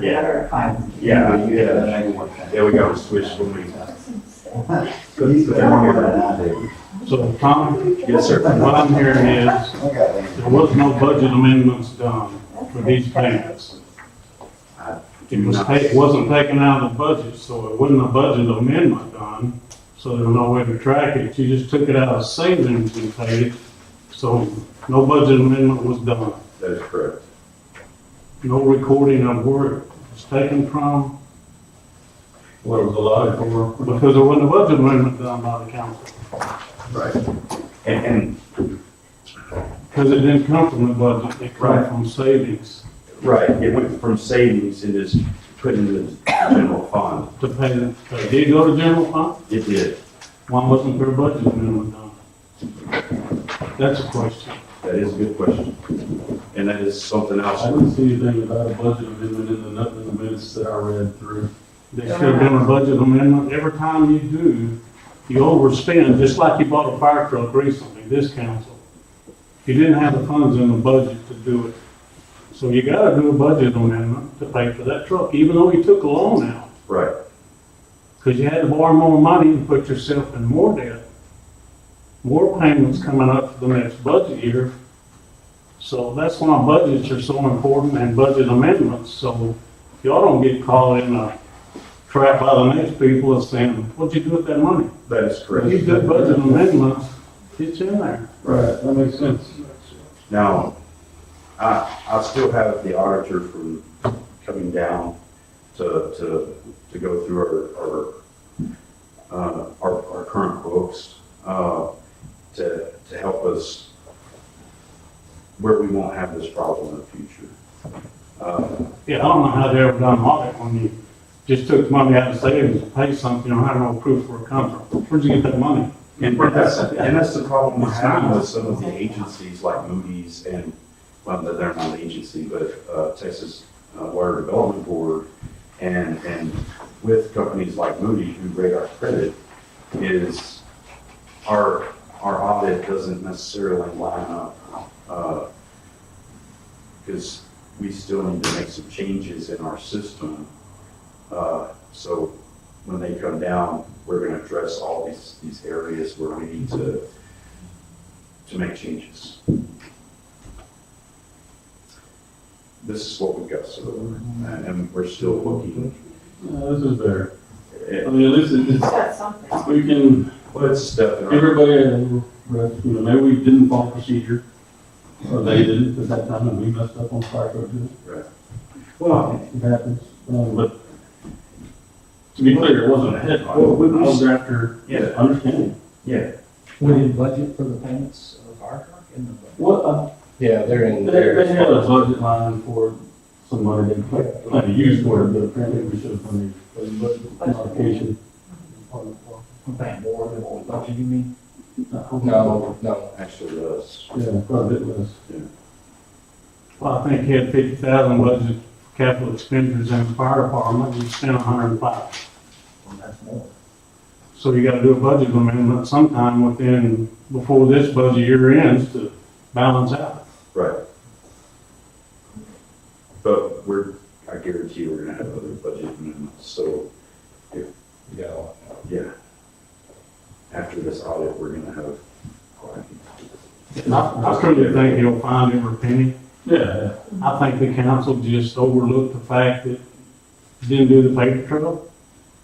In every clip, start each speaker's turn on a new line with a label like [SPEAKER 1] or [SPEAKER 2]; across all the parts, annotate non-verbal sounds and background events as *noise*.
[SPEAKER 1] Yeah.
[SPEAKER 2] Matter of fact.
[SPEAKER 1] Yeah,
[SPEAKER 3] You have an angle with that.
[SPEAKER 1] there we go, switch when we.
[SPEAKER 3] He's got one more than I do.
[SPEAKER 4] So, Tom,
[SPEAKER 1] Yes, sir.
[SPEAKER 4] what I'm hearing is,
[SPEAKER 3] I got that.
[SPEAKER 4] there was no budget amendments done for these payments. It was, ta- it wasn't taken out of the budget, so it wasn't a budget amendment done, so there was no way to track it. You just took it out of savings and paid it, so no budget amendment was done.
[SPEAKER 1] That is correct.
[SPEAKER 4] No recording of where it was taken from,
[SPEAKER 1] What was allotted for?
[SPEAKER 4] because there wasn't a budget amendment done by the council,
[SPEAKER 1] Right. And, and,
[SPEAKER 4] because it didn't come from the budget, it came
[SPEAKER 1] Right.
[SPEAKER 4] from savings
[SPEAKER 1] right, it went from savings and is put into the general fund.
[SPEAKER 4] to pay, the- pay. did it go to general fund?
[SPEAKER 1] It did.
[SPEAKER 4] Why wasn't there a budget amendment done? That's a question.
[SPEAKER 1] That is a good question. And that is something else.
[SPEAKER 5] I didn't see anything about a budget amendment in the, nothing in the minutes that I read through.
[SPEAKER 4] There should have been a budget amendment. Every time you do, you overspend, just like you bought a fire truck recently, this council. You didn't have the funds in the budget to do it. So you gotta do a budget amendment to pay for that truck, even though you took a loan out.
[SPEAKER 1] Right.
[SPEAKER 4] Because you had to borrow more money and put yourself in more debt. More payments coming up for the next budget year. So that's why budgets are so important and budget amendments, so y'all don't get caught in a trap by the next people of saying, what'd you do with that money?
[SPEAKER 1] That is correct.
[SPEAKER 4] You did budget amendments, it's in there.
[SPEAKER 5] Right. That makes sense.
[SPEAKER 1] Now, I, I still have the auditor from coming down to, to, to go through our, our, uh, our, our current books, uh, to, to help us where we won't have this problem in the future. Uh,
[SPEAKER 4] Yeah, I don't know how they ever done an audit when you just took money out of savings to pay something, you don't have no proof where it comes from. Where'd you get that money?
[SPEAKER 1] And that's, and that's the problem we're having with some of the agencies like Moody's and, well, they're not an agency, but uh, Texas uh, Water Development Board and, and with companies like Moody who rate our credit is our, our audit doesn't necessarily line up. Because we still need to make some changes in our system. Uh, So when they come down, we're gonna address all these, these areas where we need to, to make changes. This is what we've got, so, and and we're still looking.
[SPEAKER 5] Yeah, Uh, this is better. I
[SPEAKER 1] at-
[SPEAKER 5] mean, at least it-
[SPEAKER 2] It's
[SPEAKER 5] it's,
[SPEAKER 2] got something.
[SPEAKER 5] we can,
[SPEAKER 1] Well, it's a step in our,
[SPEAKER 5] everybody, had a little rest, you know, maybe we didn't follow procedure, or they didn't at that time, and we messed up on fire code.
[SPEAKER 1] well,
[SPEAKER 5] It happens. Um, but to be clear, it wasn't a headline.
[SPEAKER 1] Well, we-
[SPEAKER 5] I was after
[SPEAKER 1] yeah,
[SPEAKER 5] understanding.
[SPEAKER 1] yeah,
[SPEAKER 6] We didn't budget for the payments of the fire truck in the budget.
[SPEAKER 5] What, uh,
[SPEAKER 7] Yeah, they're in
[SPEAKER 5] they, they had a
[SPEAKER 7] there.
[SPEAKER 5] budget line for some money they planned to use for it, but apparently we should have funded, it. It was a modification.
[SPEAKER 6] We paid more than what we budgeted, you mean?
[SPEAKER 7] No, no.
[SPEAKER 1] actually, does.
[SPEAKER 5] Yeah, probably it was.
[SPEAKER 4] Well, I think he had fifty thousand budget for capital expenditures in the fire department, and you spent a hundred and five.
[SPEAKER 6] Well, That's more.
[SPEAKER 4] So you gotta do a budget amendment sometime within, before this budget year ends to balance out.
[SPEAKER 1] right. But we're, I guarantee you, we're gonna have other budget amendments, so,
[SPEAKER 7] Yeah.
[SPEAKER 1] yeah. After this audit, we're gonna have quite a few.
[SPEAKER 4] I, I truly think he'll find every penny.
[SPEAKER 5] Yeah,
[SPEAKER 4] I think the council just overlooked the fact that didn't do the paper trail,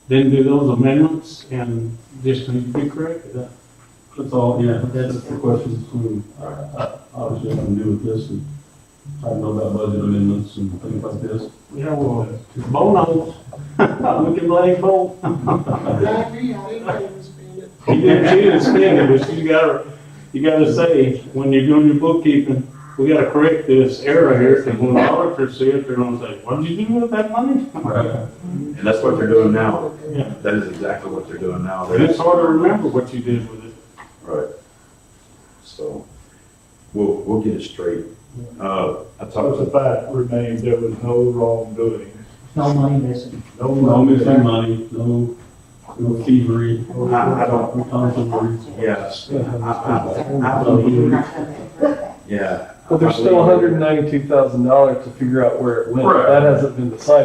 [SPEAKER 4] didn't do those amendments, and just need to be corrected.
[SPEAKER 5] that's all, yeah, that's the questions between, I- I- obviously, I'm new with this, and I know about budget amendments and things like this.
[SPEAKER 4] Yeah, well, Bo knows. *laughs* We can blame Bo. You didn't, you didn't spend it, but you gotta, you gotta say, when you're doing your bookkeeping, we gotta correct this error here, because when the auditors see it, they're gonna say, what did you do with that money?
[SPEAKER 5] Right.
[SPEAKER 1] And that's what they're doing now.
[SPEAKER 4] Yeah.
[SPEAKER 1] That is exactly what they're doing now.
[SPEAKER 4] And it's hard to remember what you did with it.
[SPEAKER 1] Right. So, we'll, we'll get it straight. Uh, I talked to,
[SPEAKER 8] fact remains, there was no wrongdoing.
[SPEAKER 6] No money missing.
[SPEAKER 8] No
[SPEAKER 5] No missing
[SPEAKER 8] wrongdoing.
[SPEAKER 5] money, no, no thievery.
[SPEAKER 1] I- I don't-
[SPEAKER 5] No tomfoolery.
[SPEAKER 1] yes,
[SPEAKER 5] Yeah.
[SPEAKER 1] I
[SPEAKER 2] We're
[SPEAKER 1] believe,
[SPEAKER 2] not having it.
[SPEAKER 1] yeah.
[SPEAKER 7] But there's still hundred and ninety-two thousand dollars to figure out where it went.
[SPEAKER 5] Right.
[SPEAKER 7] That hasn't been decided.